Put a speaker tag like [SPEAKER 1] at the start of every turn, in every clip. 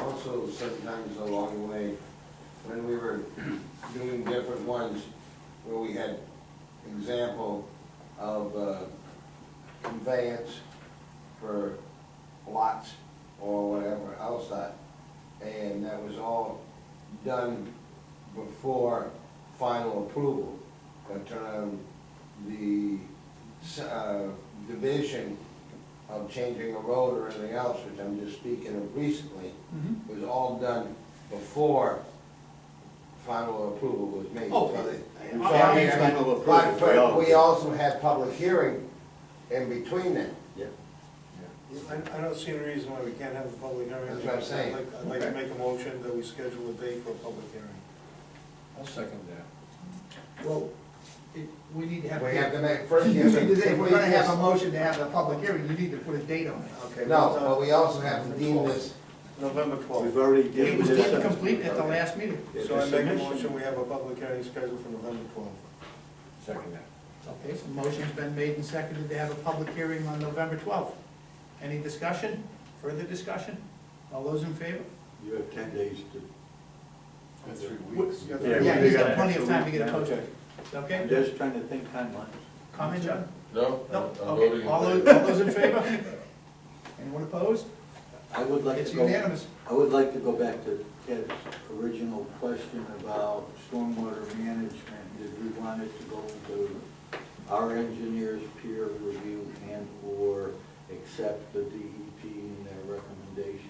[SPEAKER 1] also sometimes along the way, when we were doing different ones, where we had example of uh, conveyance for lots or whatever else that, and that was all done before final approval. But um, the s- uh, division of changing a road or anything else, which I'm just speaking of recently,
[SPEAKER 2] Mhm.
[SPEAKER 1] was all done before final approval was made.
[SPEAKER 2] Oh,
[SPEAKER 1] So they-
[SPEAKER 2] I-
[SPEAKER 1] so,
[SPEAKER 2] I
[SPEAKER 1] I mean,
[SPEAKER 2] understand.
[SPEAKER 1] but-
[SPEAKER 3] Final approval, we all
[SPEAKER 1] But we
[SPEAKER 3] did.
[SPEAKER 1] also had public hearing in between them.
[SPEAKER 3] Yeah.
[SPEAKER 4] I, I don't see any reason why we can't have a public hearing.
[SPEAKER 1] That's what I'm saying.
[SPEAKER 4] I'd like- I'd like to make a motion that we schedule a date for a public hearing.
[SPEAKER 5] I'll second that.
[SPEAKER 2] Well, it, we need to have.
[SPEAKER 1] We have to make, first
[SPEAKER 2] You
[SPEAKER 1] you have
[SPEAKER 2] need to-
[SPEAKER 1] to.
[SPEAKER 2] If we're gonna have a motion to have a public hearing, you need to put a date on it.
[SPEAKER 4] Okay.
[SPEAKER 1] No,
[SPEAKER 4] what's on
[SPEAKER 1] but we also have to deem this,
[SPEAKER 4] uh, November
[SPEAKER 3] We've
[SPEAKER 4] twelfth.
[SPEAKER 3] already
[SPEAKER 2] It
[SPEAKER 3] given
[SPEAKER 2] was
[SPEAKER 3] this.
[SPEAKER 2] incomplete at the last meeting.
[SPEAKER 4] So I make a motion, we have a public hearing scheduled for November twelfth.
[SPEAKER 5] Second that.
[SPEAKER 2] Okay, so motion's been made and seconded to have a public hearing on November twelfth. Any discussion? Further discussion? All those in favor?
[SPEAKER 3] You have ten days to.
[SPEAKER 5] That's three weeks.
[SPEAKER 4] weeks.
[SPEAKER 3] Yeah,
[SPEAKER 2] Yeah,
[SPEAKER 3] we
[SPEAKER 2] he's got
[SPEAKER 3] got
[SPEAKER 2] plenty of time to get it
[SPEAKER 3] it.
[SPEAKER 2] posted.
[SPEAKER 3] I'm
[SPEAKER 2] Okay,
[SPEAKER 3] just trying to think timelines.
[SPEAKER 2] comment, John?
[SPEAKER 6] No, I'm
[SPEAKER 2] No,
[SPEAKER 6] I'm voting
[SPEAKER 2] okay,
[SPEAKER 6] in
[SPEAKER 2] all those,
[SPEAKER 6] favor.
[SPEAKER 2] all those in favor? Anyone opposed?
[SPEAKER 3] I would like
[SPEAKER 2] It's
[SPEAKER 3] to go,
[SPEAKER 2] unanimous.
[SPEAKER 3] I would like to go back to Ted's original question about stormwater management. Did we want it to go to our engineers peer review and or accept the DEP and their recommendations?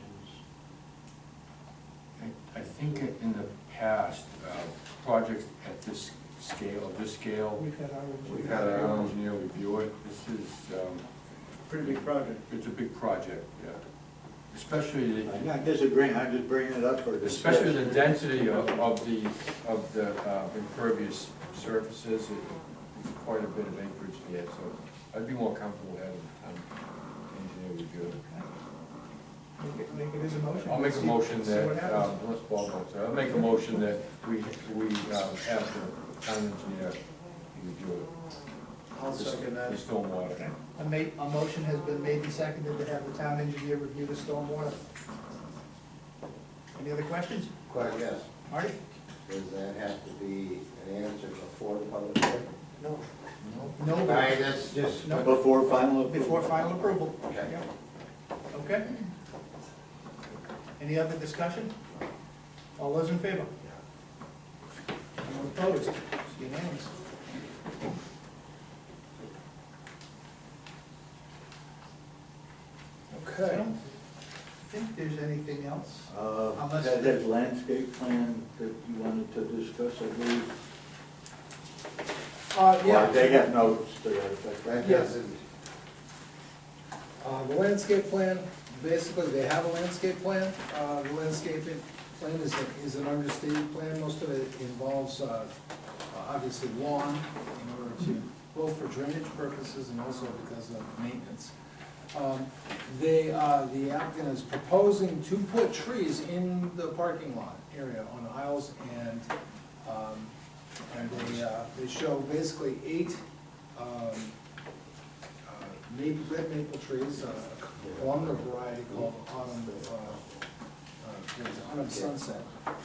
[SPEAKER 5] I think in in the past, uh, projects at this scale, of this scale,
[SPEAKER 2] We've had our.
[SPEAKER 5] we've had our own engineer review it. This is, um,
[SPEAKER 2] Pretty big project.
[SPEAKER 5] it's a big project, yeah. Especially, the-
[SPEAKER 3] I'm not disagreeing, I'm just bringing it up for discussion.
[SPEAKER 5] especially the density of of the, of the uh, impervious surfaces. It- It's quite a bit of acreage there, so I'd be more comfortable having an engineer review it.
[SPEAKER 2] Make it- make it as a motion.
[SPEAKER 5] I'll make a
[SPEAKER 2] See-
[SPEAKER 5] motion
[SPEAKER 2] see what
[SPEAKER 5] that,
[SPEAKER 2] happens.
[SPEAKER 5] um, unless Paul votes, I'll make a motion that we, we um, have the town engineer review
[SPEAKER 4] I'll second
[SPEAKER 5] it,
[SPEAKER 4] that.
[SPEAKER 5] the stormwater.
[SPEAKER 2] A ma, a motion has been made and seconded to have the town engineer review the stormwater. Any other questions?
[SPEAKER 1] quite yes,
[SPEAKER 2] Marty?
[SPEAKER 1] does that have to be an answer before the public hearing?
[SPEAKER 4] No.
[SPEAKER 1] All
[SPEAKER 2] No,
[SPEAKER 1] right, that's just,
[SPEAKER 2] No.
[SPEAKER 3] Before final approval.
[SPEAKER 2] before final approval.
[SPEAKER 1] Okay.
[SPEAKER 2] Yep. Okay? Any other discussion? All those in favor? Anyone opposed? It's unanimous. I
[SPEAKER 5] Okay.
[SPEAKER 2] don't think there's anything else.
[SPEAKER 3] Uh,
[SPEAKER 2] Unless-
[SPEAKER 3] That that landscape plan that you wanted to discuss, I believe.
[SPEAKER 7] Uh,
[SPEAKER 3] Well,
[SPEAKER 7] yeah,
[SPEAKER 3] They have notes to that effect, right?
[SPEAKER 1] that doesn't,
[SPEAKER 7] uh, the landscape plan, basically, they have a landscape plan. Uh, the landscaping plan is, a- is an understated plan, most of it involves, uh, uh, obviously lawn in order to, both for drainage purposes and also because of maintenance. Um, They, uh, the applicant is proposing to put trees in the parking lot area on aisles and, um, and they, uh, they show basically eight, um, uh, maple, red maple trees, uh, a columnar variety called autumn, uh, uh, what is it, autumn sunset.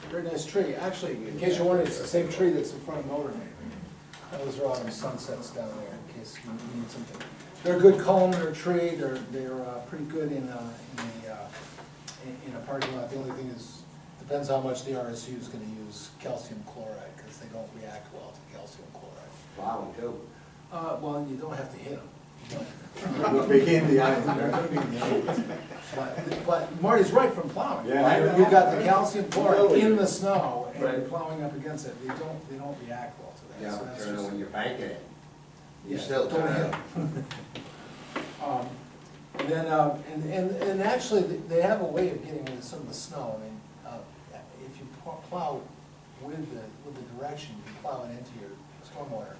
[SPEAKER 7] Very nice tree, actually, in case you're wondering, it's the same tree that's in front of Motorhead. Those are autumn sunsets down there, in case you need something. They're a good columnar tree, they're, they're uh, pretty good in, uh, in the, uh, in, in a parking lot. The only thing is, depends how much the RSU is gonna use calcium chloride, because they don't react well to calcium chloride.
[SPEAKER 1] wow, too.
[SPEAKER 7] Uh, well, you don't have to hit them.
[SPEAKER 3] What became the island.
[SPEAKER 7] But but Marty's right from plowing.
[SPEAKER 3] Yeah, I know.
[SPEAKER 7] You've got the calcium chloride in the snow and you're
[SPEAKER 1] Right.
[SPEAKER 7] plowing up against it, they don't, they don't react well to
[SPEAKER 1] You
[SPEAKER 7] that, so
[SPEAKER 1] know,
[SPEAKER 7] that's
[SPEAKER 1] turn it
[SPEAKER 7] just.
[SPEAKER 1] when you're banking it. You
[SPEAKER 7] Yeah,
[SPEAKER 1] still
[SPEAKER 7] don't
[SPEAKER 1] turn
[SPEAKER 7] hit
[SPEAKER 1] it.
[SPEAKER 7] 'em. Um, And then, uh, and, and, and actually, th- they have a way of getting rid of some of the snow, I mean, uh, if you pl- plow with the, with the direction, you plow it into your stormwater.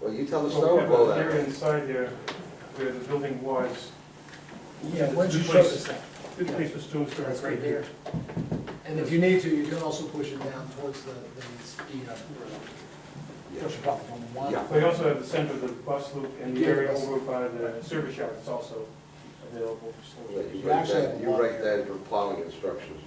[SPEAKER 1] Well, you tell the
[SPEAKER 2] Oh,
[SPEAKER 8] Well,
[SPEAKER 1] story,
[SPEAKER 8] yeah,
[SPEAKER 1] blow
[SPEAKER 8] but the
[SPEAKER 1] that.
[SPEAKER 8] area inside there, where the building was,
[SPEAKER 7] Yeah, once you
[SPEAKER 8] Two
[SPEAKER 7] show
[SPEAKER 8] places.
[SPEAKER 7] us that.
[SPEAKER 8] this place was two stories
[SPEAKER 7] That's
[SPEAKER 8] right here.
[SPEAKER 7] And if you need to, you can also push it down towards the, the speed up. Push it up on one.
[SPEAKER 1] Yeah.
[SPEAKER 8] They also have the center of the bus loop and the
[SPEAKER 7] Yeah,
[SPEAKER 8] area
[SPEAKER 7] bus.
[SPEAKER 8] over by the service yard is also available for storage.
[SPEAKER 7] You actually have a
[SPEAKER 6] You
[SPEAKER 7] lot
[SPEAKER 6] write
[SPEAKER 7] here.
[SPEAKER 6] that for plowing instructions